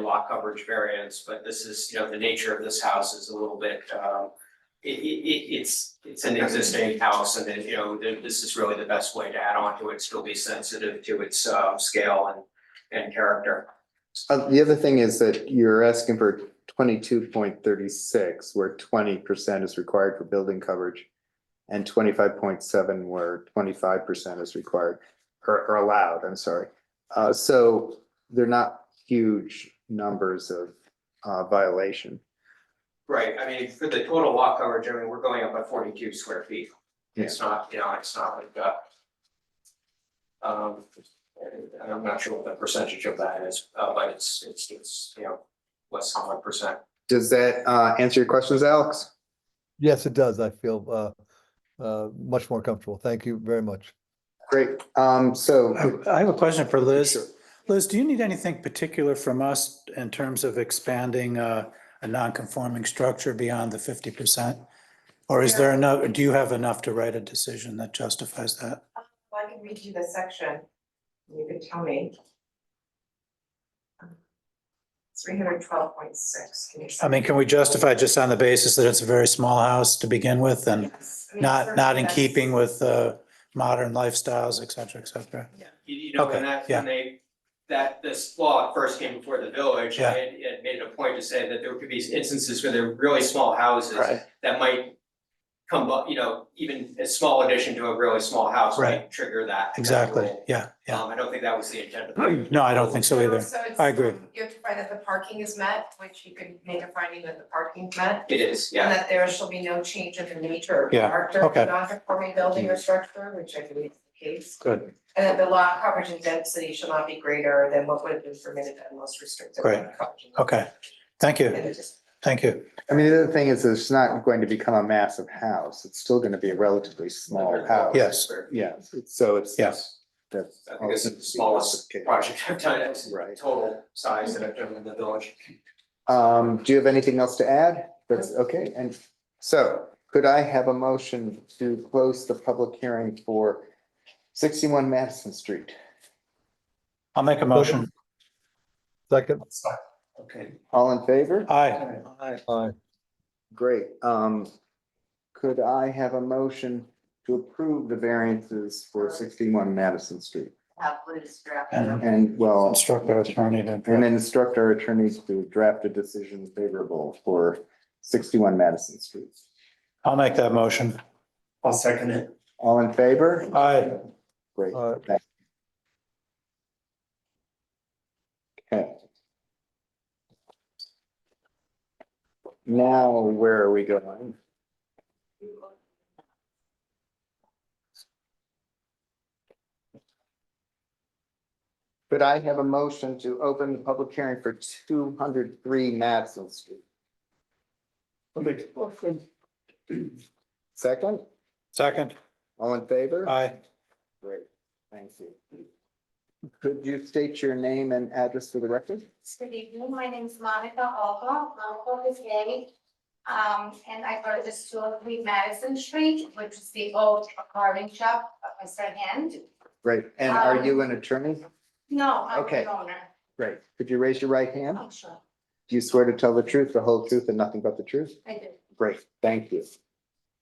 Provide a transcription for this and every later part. lot coverage variance, but this is, you know, the nature of this house is a little bit, um. It, it, it, it's, it's an existing house and then, you know, th- this is really the best way to add on to it, still be sensitive to its, uh, scale and, and character. Uh, the other thing is that you're asking for twenty-two point thirty-six, where twenty percent is required for building coverage. And twenty-five point seven, where twenty-five percent is required, or, or allowed, I'm sorry. Uh, so they're not huge numbers of, uh, violation. Right, I mean, for the total lot coverage, I mean, we're going up by forty-two square feet. It's not, you know, it's not like, uh. Um, and and I'm not sure what the percentage of that is, uh, but it's, it's, it's, you know, less than one percent. Does that, uh, answer your questions, Alex? Yes, it does. I feel uh, uh, much more comfortable. Thank you very much. Great, um, so. I have a question for Sure. Liz. Liz, do you need anything particular from us in terms of expanding uh, a non-conforming structure beyond the fifty percent? Or is there enough, do you have enough to write a decision that justifies that? Well, I can read you the section, and you can tell me. Three hundred twelve point six, can you? I mean, can we justify just on the basis that it's a very small house to begin with and Yes, I mean, not, not in certainly keeping with uh, modern lifestyles, et cetera, et cetera? You, you know, Okay, when that, yeah. when they, that this law first came before the village, Yeah. it, it made it a point to say that there could be instances where there are really small houses. That might come up, you know, even a small addition to a really small house might Right. trigger that. that Exactly, rule. yeah, yeah. Um, I don't think that was the intent of the. No, I don't think so either. So it's, I agree. um, You have to find that the parking is met, which you could make a finding that the parking's met. It is, And yeah, that there shall be no change in the nature or Yeah, character of the okay. non-conforming building or structure, which I believe is the case. Good. And that the lot coverage and density shall not be greater than what would have been permitted at most restrictive. lot Great. coverage. Okay. Thank you, And it just thank you. I mean, the other thing is, it's not going to become a massive house, it's still gonna be a relatively small house. Yeah. Yeah, so it's. Yes. That's. I think this is the smallest project I've done, it's the Right. total size that I've done in the village. Um, do you have anything else to add? That's okay, and so could I have a motion to close the public hearing for sixty-one Madison Street? I'll make a motion. Second, Okay. All in favor? Aye. aye, Great, um, could I have a motion to approve the variances for sixty-one Madison Street? Have Liz draft. it And- up. And well, Instruct our attorney to. and then instruct our attorneys to draft a decision favorable for sixty-one Madison Street. I'll make that motion. I'll second it. All in favor? Aye. Great. aye. Okay. Now, where are we going? Could I have a motion to open the public hearing for two hundred three Madison Street? Second, Second. all in favor? Aye. Great, thank you. Could you state your name and address for the record? Good evening, my name is Monica Alba, my home is Gary. Um, and I purchased two oh three Madison Street, which is the old carving shop of Mr. Hand. Great, and are you an attorney? No, I'm Okay. the owner, Great. Could you raise your right hand? I'm sure, Do you swear to tell the truth, the whole truth, and nothing but the truth? I do. Great, thank you.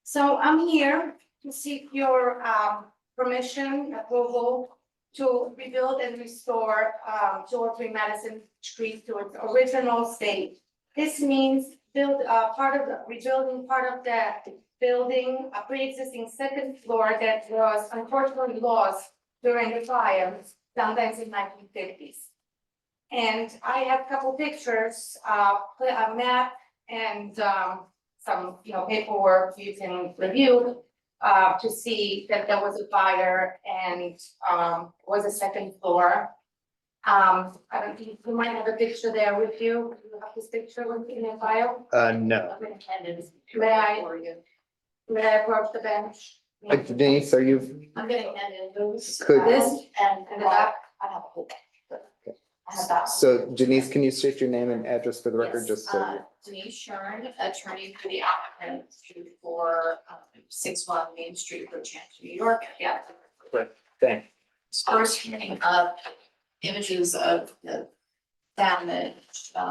So I'm here to seek your um permission, approval to rebuild and restore um two or three Madison Street to its original state. This means build uh part of the rebuilding part of the building, a pre-existing second floor that was unfortunately lost during the fire, sometimes in nineteen fifties. And I have a couple pictures, uh a map and um some, you know, paperwork you can review uh, to see that there was a fire and, um, was a second floor. Um, I don't think, you might have a picture there with you, you have this picture with- in your file, Uh, no. may I? May I approach the bench? Uh, Denise, are you, I'm getting handed those. Could- This and uh, in the back, I have a whole bag. but I have that. so Denise, can you state your name and address for the record, Yes, just so? uh, Denise Shern, attorney for the applicant for um, six one Main Street, Bridgehampton, New York. Yeah. Thanks. First hearing of images of the damage, um,